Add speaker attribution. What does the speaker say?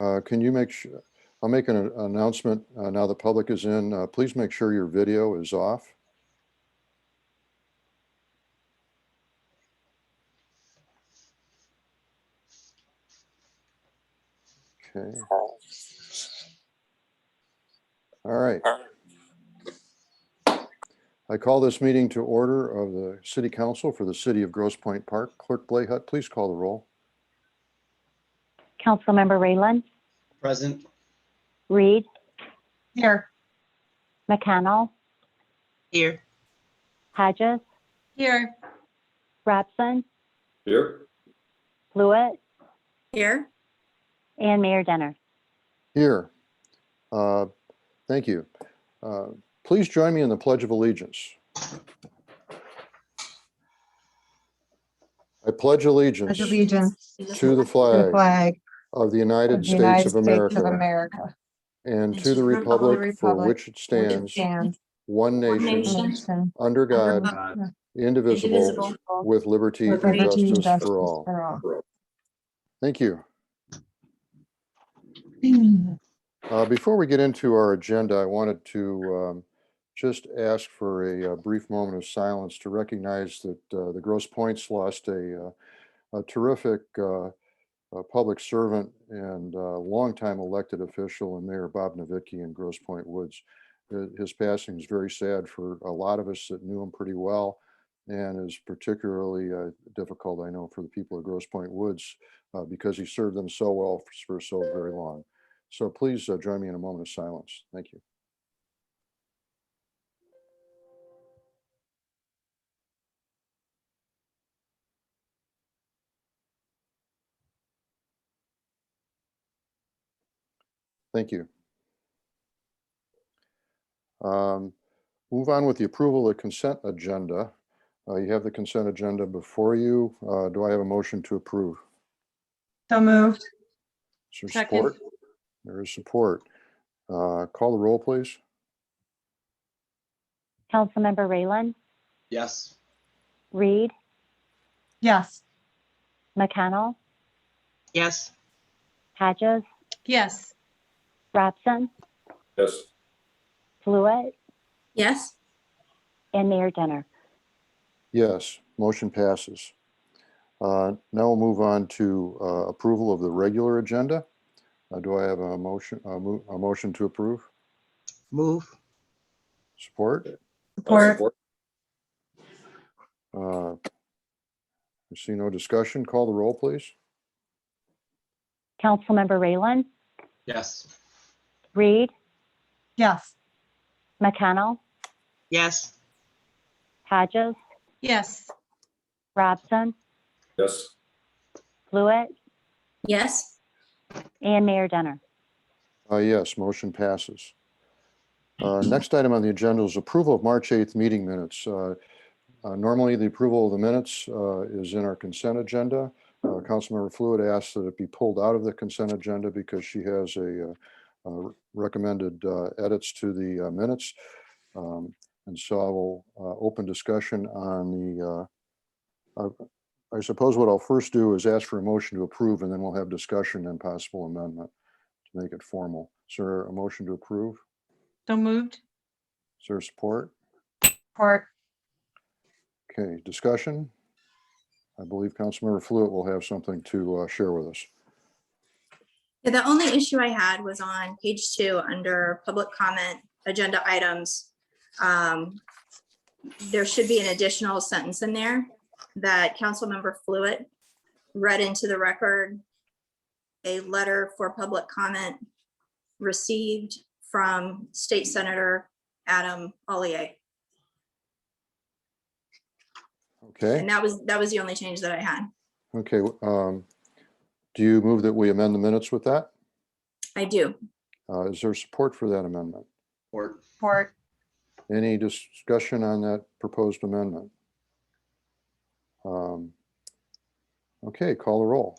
Speaker 1: Uh, Can you make, su- I'll make an announcement uh, now the public is in. Uh, Please make sure your video is off. Okay. All right. I call this meeting to order of the City Council for the City of Grosse Pointe Park. Clerk Blayhut, please call the roll.
Speaker 2: Councilmember Rayland,
Speaker 3: Present.
Speaker 2: Reed,
Speaker 4: Here.
Speaker 2: McConnell,
Speaker 4: Here.
Speaker 2: Hodges,
Speaker 4: Here.
Speaker 2: Robson,
Speaker 5: Here,
Speaker 2: Blewett,
Speaker 4: Here.
Speaker 2: and Mayor Denner.
Speaker 1: Here. Uh, Thank you. Uh, Please join me in the Pledge of Allegiance. I pledge allegiance
Speaker 6: Pledge allegiance
Speaker 1: to the
Speaker 6: to the
Speaker 1: flag
Speaker 6: flag
Speaker 1: of the
Speaker 6: of
Speaker 1: United
Speaker 6: the United
Speaker 1: States of
Speaker 6: States of
Speaker 1: America
Speaker 6: America.
Speaker 1: and to the republic for which it
Speaker 6: which
Speaker 1: stands,
Speaker 6: stands
Speaker 1: one nation,
Speaker 6: nation
Speaker 1: under God, indivisible, with liberty
Speaker 6: with
Speaker 1: and
Speaker 6: liberty and
Speaker 1: justice
Speaker 6: justice
Speaker 1: for all.
Speaker 6: for all.
Speaker 1: Thank you. Uh, Before we get into our agenda, I wanted to um, just ask for a uh, brief moment of silence to recognize that uh, the Gross Points lost a uh, a terrific uh, uh, public servant and uh, longtime elected official and Mayor Bob Novicki in Gross Point Woods. Uh, His passing is very sad for a lot of us that knew him pretty well and is particularly uh, difficult, I know, for the people of Gross Point Woods uh, because he served them so well for so very long. So please uh, join me in a moment of silence. Thank you. Thank you. Um, Move on with the approval of consent agenda. Uh, You have the consent agenda before you. Uh, Do I have a motion to approve?
Speaker 6: So moved.
Speaker 1: Is there
Speaker 4: Second.
Speaker 1: support? There is support. Uh, Call the roll, please.
Speaker 2: Councilmember Rayland,
Speaker 3: Yes.
Speaker 2: Reed,
Speaker 6: Yes.
Speaker 2: McConnell,
Speaker 4: Yes.
Speaker 2: Hodges,
Speaker 4: Yes.
Speaker 2: Robson,
Speaker 5: yes,
Speaker 2: Blewett,
Speaker 4: Yes.
Speaker 2: and Mayor Denner.
Speaker 1: Yes, motion passes. Uh, Now we'll move on to uh, approval of the regular agenda. Uh, Do I have a motion, a mo- a motion to approve?
Speaker 3: Move.
Speaker 1: Support?
Speaker 5: I'll
Speaker 6: Support.
Speaker 5: support,
Speaker 1: Uh, I See no discussion. Call the roll, please.
Speaker 2: Councilmember Rayland,
Speaker 3: Yes.
Speaker 2: Reed,
Speaker 6: Yes.
Speaker 2: McConnell,
Speaker 4: Yes.
Speaker 2: Hodges,
Speaker 4: Yes.
Speaker 2: Robson,
Speaker 5: yes,
Speaker 2: Blewett,
Speaker 4: Yes.
Speaker 2: and Mayor Denner.
Speaker 1: Uh, Yes, motion passes. Uh, Next item on the agenda is approval of March 8th meeting minutes. Uh, uh, Normally, the approval of the minutes uh, is in our consent agenda. Uh, Councilmember Fluid asked that it be pulled out of the consent agenda because she has a uh, uh, recommended uh, edits to the uh, minutes. Um, And so I will uh, open discussion on the, uh, uh, I suppose what I'll first do is ask for a motion to approve, and then we'll have discussion and possible amendment to make it formal. Is there a motion to approve?
Speaker 4: So moved.
Speaker 1: Is there support?
Speaker 6: Support.
Speaker 1: Okay, discussion? I believe Councilmember Fluid will have something to uh, share with us.
Speaker 7: Yeah, The only issue I had was on page two, under public comment, agenda items. Um, There should be an additional sentence in there that Councilmember Fluid read into the record. A letter for public comment received from State Senator Adam Ollier.
Speaker 1: Okay,
Speaker 7: And that was, that was the only change that I had.
Speaker 1: okay. um, Do you move that we amend the minutes with that?
Speaker 7: I do.
Speaker 1: Uh, Is there support for that amendment?
Speaker 3: Support.
Speaker 6: Support.
Speaker 1: Any discussion on that proposed amendment? Um, Okay, call the roll.